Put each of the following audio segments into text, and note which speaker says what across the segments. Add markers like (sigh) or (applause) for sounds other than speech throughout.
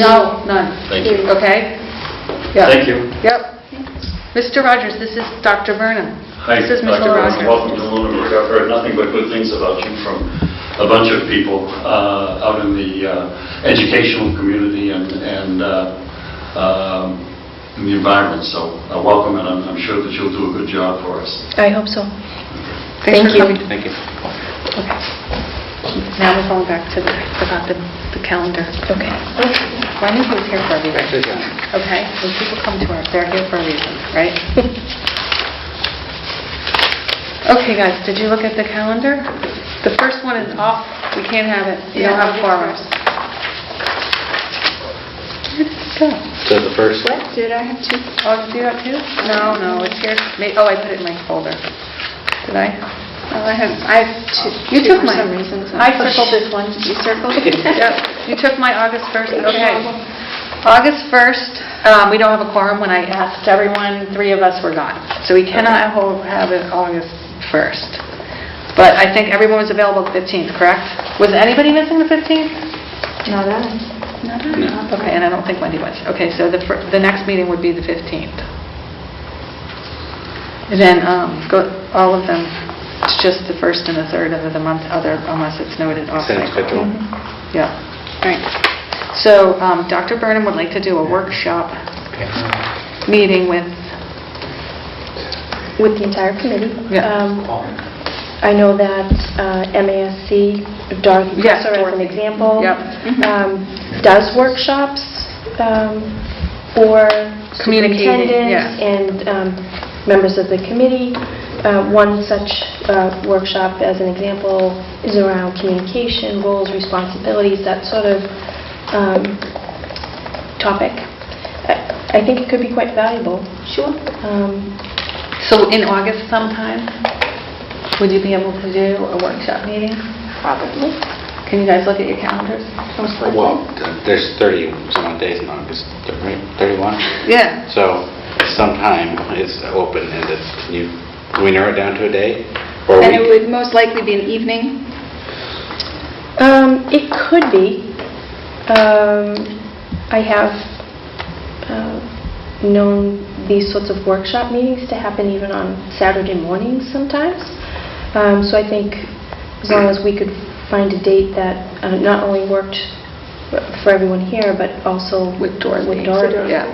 Speaker 1: No, none.
Speaker 2: Thank you.
Speaker 1: Okay? Yeah.
Speaker 2: Thank you.
Speaker 1: Yep. Mr. Rogers, this is Dr. Burnham.
Speaker 2: Hi,
Speaker 1: This is Mrs.
Speaker 2: Dr. Burns.
Speaker 1: Rogers.
Speaker 2: Welcome to Lunenburg. I've heard nothing but good things about you from a bunch of people uh, out in the uh, educational community and and, uh, um, in the environment, so uh, welcome, and I'm I'm sure that you'll do a good job for us.
Speaker 1: I hope so.
Speaker 3: Thank
Speaker 1: Thanks for
Speaker 3: you.
Speaker 1: coming.
Speaker 4: Thank you.
Speaker 1: Now we're going back to the, about the the calendar. Okay. Wendy was here for a reason.
Speaker 4: Thank you.
Speaker 1: Okay? When people come to us, they're here for a reason, (laughs) right? Okay, guys, did you look at the calendar? The first one is off. We can't have it. We don't have quorums. Where did it go?
Speaker 4: So the first,
Speaker 3: What, did I have two?
Speaker 1: Oh, did you do that too? No, no, it's here. May- Oh, I put it in my folder. Did I?
Speaker 3: Oh, I have, I have two.
Speaker 1: You
Speaker 3: two
Speaker 1: took mine.
Speaker 3: For some reason. so-
Speaker 1: I circled this
Speaker 3: one. You circled it?
Speaker 1: Yep, (laughs) you took my August 1st,
Speaker 3: No
Speaker 1: okay.
Speaker 3: problem.
Speaker 1: August 1st, um, we don't have a quorum. When I asked everyone, three of us were gone. So we cannot ho- have it August 1st. But I think everyone was available the 15th, correct? Was anybody missing the 15th?
Speaker 3: No, that is.
Speaker 4: no.
Speaker 1: Okay, and I don't think Wendy was. Okay, so the, fir- the next meeting would be the 15th. And then, um, go, all of them, it's just the first and the third of the month, other, unless it's noted off
Speaker 4: Same
Speaker 1: cycle.
Speaker 4: schedule.
Speaker 1: Yeah, right. So um, Dr. Burnham would like to do a workshop meeting with,
Speaker 3: With the entire committee.
Speaker 1: Yeah.
Speaker 3: Um, I know that uh, MASC, Dorothy
Speaker 1: Yes,
Speaker 3: Presser as an
Speaker 1: Dorothy.
Speaker 3: example.
Speaker 1: Yep.
Speaker 3: um, Does workshops um, for
Speaker 1: Communicating,
Speaker 3: superintendents
Speaker 1: yeah.
Speaker 3: and um, members of the committee. Uh, One such uh, workshop, as an example, is around communication, roles, responsibilities, that sort of um, topic. I I think it could be quite valuable. Um, Sure.
Speaker 1: so in August sometime, would you be able to do a workshop meeting?
Speaker 3: Probably,
Speaker 1: Can you guys look at your calendars?
Speaker 3: most
Speaker 4: Well,
Speaker 3: likely.
Speaker 4: th- there's 30 some odd days in August, right? 31?
Speaker 1: Yeah.
Speaker 4: So sometime is open-ended. Can you, can we narrow it down to a day? or a
Speaker 5: And it
Speaker 4: week?
Speaker 5: would most likely be an evening.
Speaker 3: Um, It could be. Um, I have uh, known these sorts of workshop meetings to happen even on Saturday mornings sometimes. Um, So I think as long as we could find a date that uh, not only worked for everyone here, but also
Speaker 1: With Dorothy.
Speaker 3: With Dorothy.
Speaker 1: Yeah.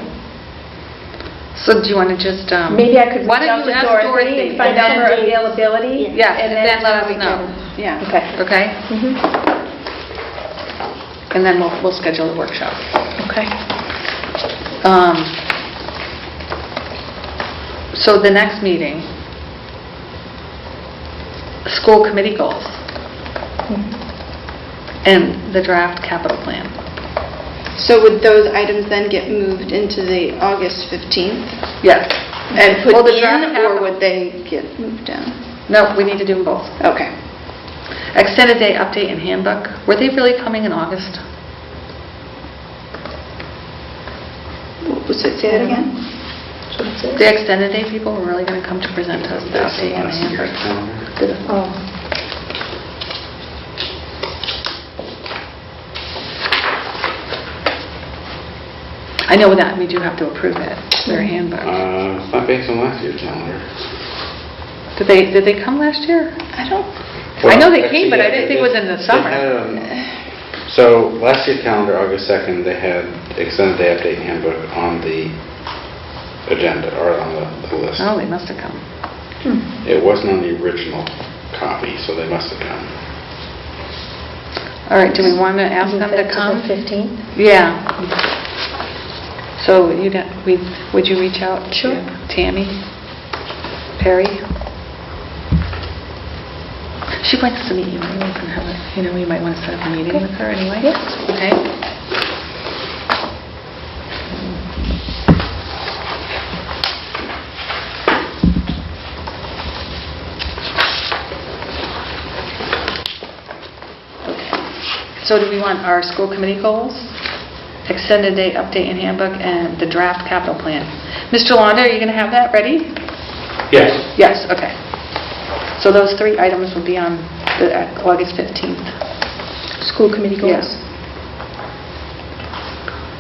Speaker 1: So do you want to just... um,
Speaker 3: Maybe I could
Speaker 1: why
Speaker 3: reach out
Speaker 1: don't you
Speaker 3: to
Speaker 1: ask
Speaker 3: Dorothy and find out
Speaker 1: then-
Speaker 3: her availability.
Speaker 1: Yeah, and then let us
Speaker 3: we
Speaker 1: know.
Speaker 3: can-
Speaker 1: Yeah.
Speaker 3: Okay.
Speaker 1: Okay?
Speaker 3: Mhm.
Speaker 1: And then we'll we'll schedule the workshop.
Speaker 3: Okay.
Speaker 1: Um, So the next meeting, school committee goals Mm-hmm. and the draft capital plan.
Speaker 5: So would those items then get moved into the August 15th
Speaker 1: Yes.
Speaker 5: and put
Speaker 1: Well, the draft
Speaker 5: in, or
Speaker 1: capital-
Speaker 5: would they get moved down?
Speaker 1: No, we need to do them both.
Speaker 5: Okay.
Speaker 1: Extended day update and handbook, were they really coming in August?
Speaker 5: What Was it, say that again?
Speaker 3: So that's it.
Speaker 1: The extended day people were really going to come to present to us the
Speaker 4: That's
Speaker 1: update
Speaker 4: the
Speaker 1: and the
Speaker 4: last year
Speaker 1: handbook?
Speaker 4: calendar.
Speaker 3: Oh.
Speaker 1: I know that, we do have to approve it, their handbook.
Speaker 4: Uh, It's not based on last year's calendar.
Speaker 1: Did they, did they come last year?
Speaker 5: I don't,
Speaker 1: I know they
Speaker 4: Well,
Speaker 1: came, but I didn't
Speaker 4: actually,
Speaker 1: think it was in the
Speaker 4: they
Speaker 1: summer.
Speaker 4: had, um, So last year's calendar, August 2nd, they had extended day update handbook on the agenda or on the the list.
Speaker 1: Oh, they must have come.
Speaker 3: Hmm.
Speaker 4: It wasn't on the original copy, so they must have come.
Speaker 1: All right, do we want to ask them to come? Yeah. So you'd, ha- we'd- would you reach out
Speaker 3: Sure.
Speaker 1: to Tammy Perry? She wants to meet you, and we can have a, you know, we might want to set up a meeting with her anyway.
Speaker 3: Yes.
Speaker 1: Okay. So do we want our school committee goals, extended day update and handbook, and the draft capital plan? Mr. Londa, are you going to have that ready?
Speaker 4: Yes.
Speaker 1: Yes, okay. So those three items will be on the uh, August 15th.
Speaker 3: School committee
Speaker 1: Yes.
Speaker 3: goals.